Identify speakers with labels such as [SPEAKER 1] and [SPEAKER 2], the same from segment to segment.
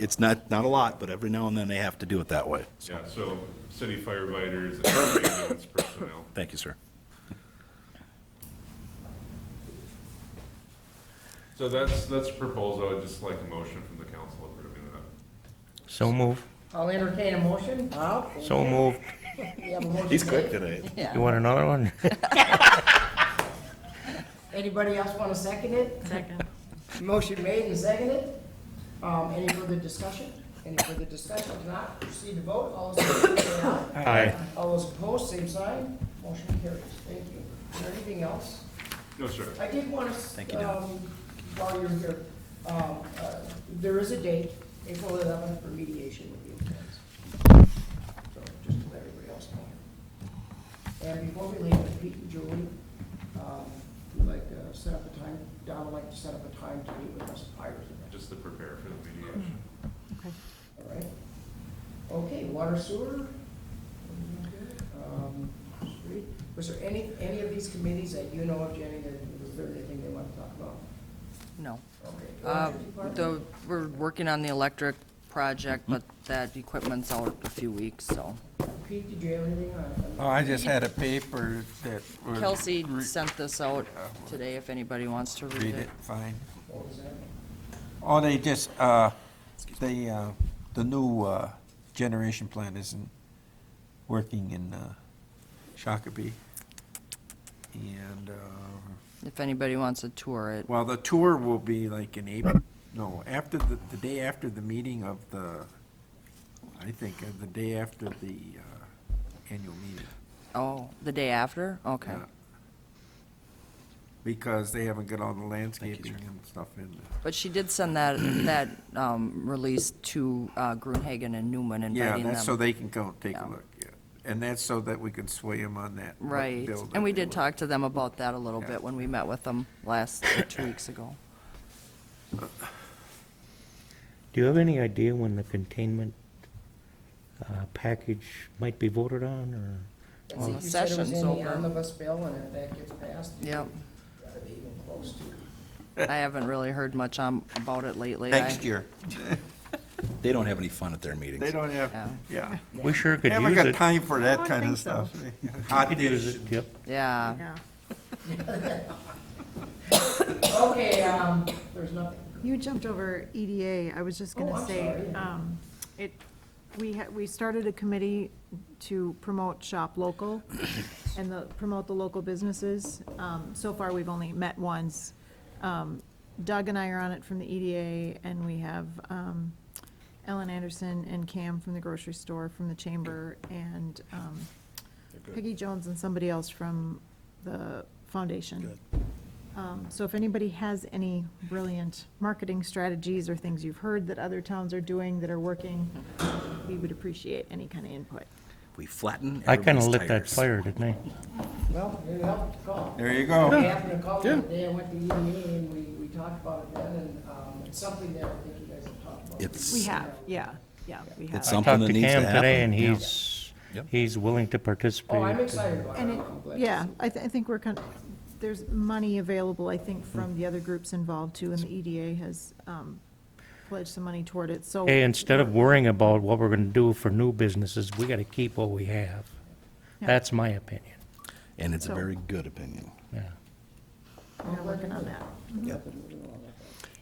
[SPEAKER 1] it's not, not a lot, but every now and then they have to do it that way.
[SPEAKER 2] Yeah, so city firefighters and ambulance personnel.
[SPEAKER 1] Thank you, sir.
[SPEAKER 2] So that's, that's a proposal, I'd just like a motion from the council approving that.
[SPEAKER 3] So move.
[SPEAKER 4] I'll entertain a motion.
[SPEAKER 3] So move.
[SPEAKER 4] We have a motion.
[SPEAKER 1] today.
[SPEAKER 3] You
[SPEAKER 4] Yeah.
[SPEAKER 3] want another one?
[SPEAKER 4] Anybody else want to second it?
[SPEAKER 5] Second.
[SPEAKER 4] Motion made and seconded. Um, any further discussion? Any further discussion? If not, proceed to vote. All those in favor say aye.
[SPEAKER 3] Aye.
[SPEAKER 4] All those opposed, same sign. Motion carries. Thank you. Is there anything else?
[SPEAKER 2] No, sir.
[SPEAKER 4] I did want
[SPEAKER 1] Thank
[SPEAKER 4] to,
[SPEAKER 1] you, Dan.
[SPEAKER 4] um, while you're here, um, uh, there is a date, April eleventh, for mediation with the employees. So, just to let everybody else know. And before we leave, Pete and Julie, um, would like to set up a time, Don would like to set up a time to meet with us prior to that,
[SPEAKER 2] Just to prepare for the mediation.
[SPEAKER 4] all right? Okay, water sewer. um, street. Was there any, any of these committees that you know of, Jenny, that, was there anything they want to talk about?
[SPEAKER 6] No.
[SPEAKER 4] Okay.
[SPEAKER 6] Uh,
[SPEAKER 4] Electric department?
[SPEAKER 6] The, we're working on the electric project, but that equipment's out a few weeks, so.
[SPEAKER 4] Pete, did you have anything on?
[SPEAKER 7] Oh, I just had a paper that was.
[SPEAKER 6] Kelsey
[SPEAKER 7] re-
[SPEAKER 6] sent this out today if anybody wants to
[SPEAKER 7] Read it, fine.
[SPEAKER 4] What was that?
[SPEAKER 7] Oh, they just, uh, they, uh, the new, uh, generation plant isn't working in, uh, Shakopee. And, uh,
[SPEAKER 6] If anybody wants to tour it.
[SPEAKER 7] Well, the tour will be like in April, no, after the, the day after the meeting of the, I think, uh, the day after the uh, annual meeting.
[SPEAKER 6] Oh, the day after? Okay.
[SPEAKER 7] Yeah. Because they haven't got all the landscaping and stuff in there.
[SPEAKER 6] But she did send that, that um, release to uh, Grunhagen and Newman
[SPEAKER 7] Yeah,
[SPEAKER 6] inviting
[SPEAKER 7] that's so
[SPEAKER 6] them.
[SPEAKER 7] they can go take
[SPEAKER 6] Yeah.
[SPEAKER 7] a look, yeah. And that's so that we can sway them on that. what
[SPEAKER 6] Right.
[SPEAKER 7] bill that
[SPEAKER 6] And we
[SPEAKER 7] they
[SPEAKER 6] did
[SPEAKER 7] want.
[SPEAKER 6] talk to them about that a little
[SPEAKER 7] Yeah.
[SPEAKER 6] bit when we met with them last, uh, two weeks ago.
[SPEAKER 3] Do you have any idea when the containment uh, package might be voted on, or?
[SPEAKER 4] I think
[SPEAKER 6] the
[SPEAKER 4] you said it was
[SPEAKER 6] session's
[SPEAKER 4] in the
[SPEAKER 6] over.
[SPEAKER 4] Omnibus bill, and if that gets passed. you
[SPEAKER 6] Yep.
[SPEAKER 4] gotta be even close to it.
[SPEAKER 6] I haven't really heard much um, about it lately. I-
[SPEAKER 7] Next year.
[SPEAKER 1] They don't have any fun at their meetings.
[SPEAKER 7] They don't have,
[SPEAKER 6] Yeah.
[SPEAKER 7] yeah.
[SPEAKER 3] We sure could
[SPEAKER 7] Haven't
[SPEAKER 3] use
[SPEAKER 7] got
[SPEAKER 3] it.
[SPEAKER 7] time for that
[SPEAKER 8] Oh,
[SPEAKER 5] don't
[SPEAKER 7] kind
[SPEAKER 5] think
[SPEAKER 7] of
[SPEAKER 5] so.
[SPEAKER 7] stuff. Hot
[SPEAKER 3] Could use
[SPEAKER 7] dish.
[SPEAKER 3] it, yep.
[SPEAKER 6] Yeah.
[SPEAKER 5] Yeah.
[SPEAKER 4] Okay, um, there's nothing.
[SPEAKER 5] You jumped over EDA, I was just
[SPEAKER 4] Oh,
[SPEAKER 5] gonna
[SPEAKER 4] I'm
[SPEAKER 5] say,
[SPEAKER 4] sorry.
[SPEAKER 5] um, it, we had, we started a committee to promote shop local and the, promote the local businesses. Um, so far, we've only met once. Um, Doug and I are on it from the EDA, and we have, um, Ellen Anderson and Cam from the grocery store, from the chamber, and, um, Peggy Jones and somebody else from the foundation. Um, So if anybody has any brilliant marketing strategies or things you've heard that other towns are doing that are working, we would appreciate any kind of input.
[SPEAKER 1] We flatten
[SPEAKER 3] I kind of
[SPEAKER 1] everybody's
[SPEAKER 3] lit that
[SPEAKER 1] tires.
[SPEAKER 3] fire, didn't I?
[SPEAKER 4] Well, you have to call.
[SPEAKER 7] There you go.
[SPEAKER 4] I happened to call the other day, I went to the EMA, and we, we talked about it then, and, um, it's something that I think you guys have talked about.
[SPEAKER 1] It's-
[SPEAKER 5] We have, yeah, yeah, we have.
[SPEAKER 1] It's something
[SPEAKER 3] Talked
[SPEAKER 1] that
[SPEAKER 3] to
[SPEAKER 1] needs to
[SPEAKER 3] Cam today,
[SPEAKER 1] happen.
[SPEAKER 3] and he's,
[SPEAKER 1] Yep.
[SPEAKER 3] he's willing to participate.
[SPEAKER 4] Oh, I'm excited about it.
[SPEAKER 5] And it,
[SPEAKER 4] I'm glad to
[SPEAKER 5] yeah,
[SPEAKER 4] see it.
[SPEAKER 5] I, th- I think we're kind of, there's money available, I think, from the other groups involved too, and the EDA has um, pledged some money toward it, so.
[SPEAKER 3] Hey, instead of worrying about what we're going to do for new businesses, we got to keep what we have.
[SPEAKER 5] Yeah.
[SPEAKER 3] That's my opinion,
[SPEAKER 1] And it's a
[SPEAKER 5] So-
[SPEAKER 1] very good opinion.
[SPEAKER 3] yeah.
[SPEAKER 5] We're working on that.
[SPEAKER 1] Yep.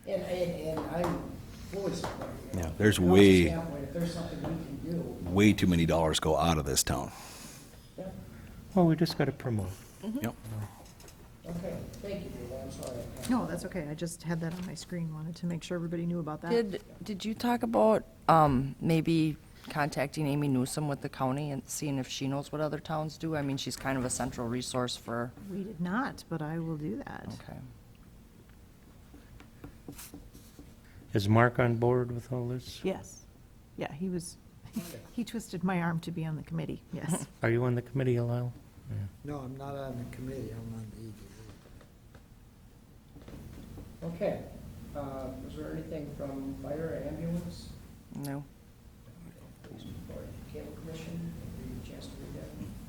[SPEAKER 4] And, and, and I'm fully supportive. of it.
[SPEAKER 1] Yeah, there's
[SPEAKER 4] From the
[SPEAKER 1] way-
[SPEAKER 4] standpoint, If there's something we can do,
[SPEAKER 1] Way too many dollars go out of this town.
[SPEAKER 4] yeah.
[SPEAKER 3] Well, we just got to promote.
[SPEAKER 1] Yep.
[SPEAKER 4] Okay, thank you, Dave, I'm sorry. I can't-
[SPEAKER 5] No, that's okay, I just had that on my screen, wanted to make sure everybody knew about that.
[SPEAKER 6] Did, did you talk about um, maybe contacting Amy Newsom with the county and seeing if she knows what other towns do? I mean, she's kind of a central resource for,
[SPEAKER 5] We did not, but I will do that.
[SPEAKER 6] okay.
[SPEAKER 3] Is Mark on board with all this?
[SPEAKER 5] Yes. Yeah, he was, he twisted my arm to be on the committee, yes.
[SPEAKER 3] Are you on the committee, Lyle?
[SPEAKER 8] No, I'm not on the committee, I'm on the E EDA.
[SPEAKER 4] Okay, uh, was there anything from fire, ambulance,
[SPEAKER 6] No?
[SPEAKER 4] police report, cable commission, Did you get a chance to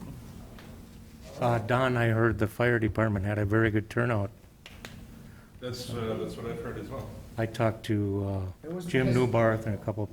[SPEAKER 4] read that?
[SPEAKER 3] Uh, Don, I heard the fire department had a very good turnout.
[SPEAKER 9] That's, uh, that's what I've heard as well.
[SPEAKER 3] I talked to uh,
[SPEAKER 2] It was
[SPEAKER 3] Jim
[SPEAKER 2] because-
[SPEAKER 3] uh, Newbarth and a couple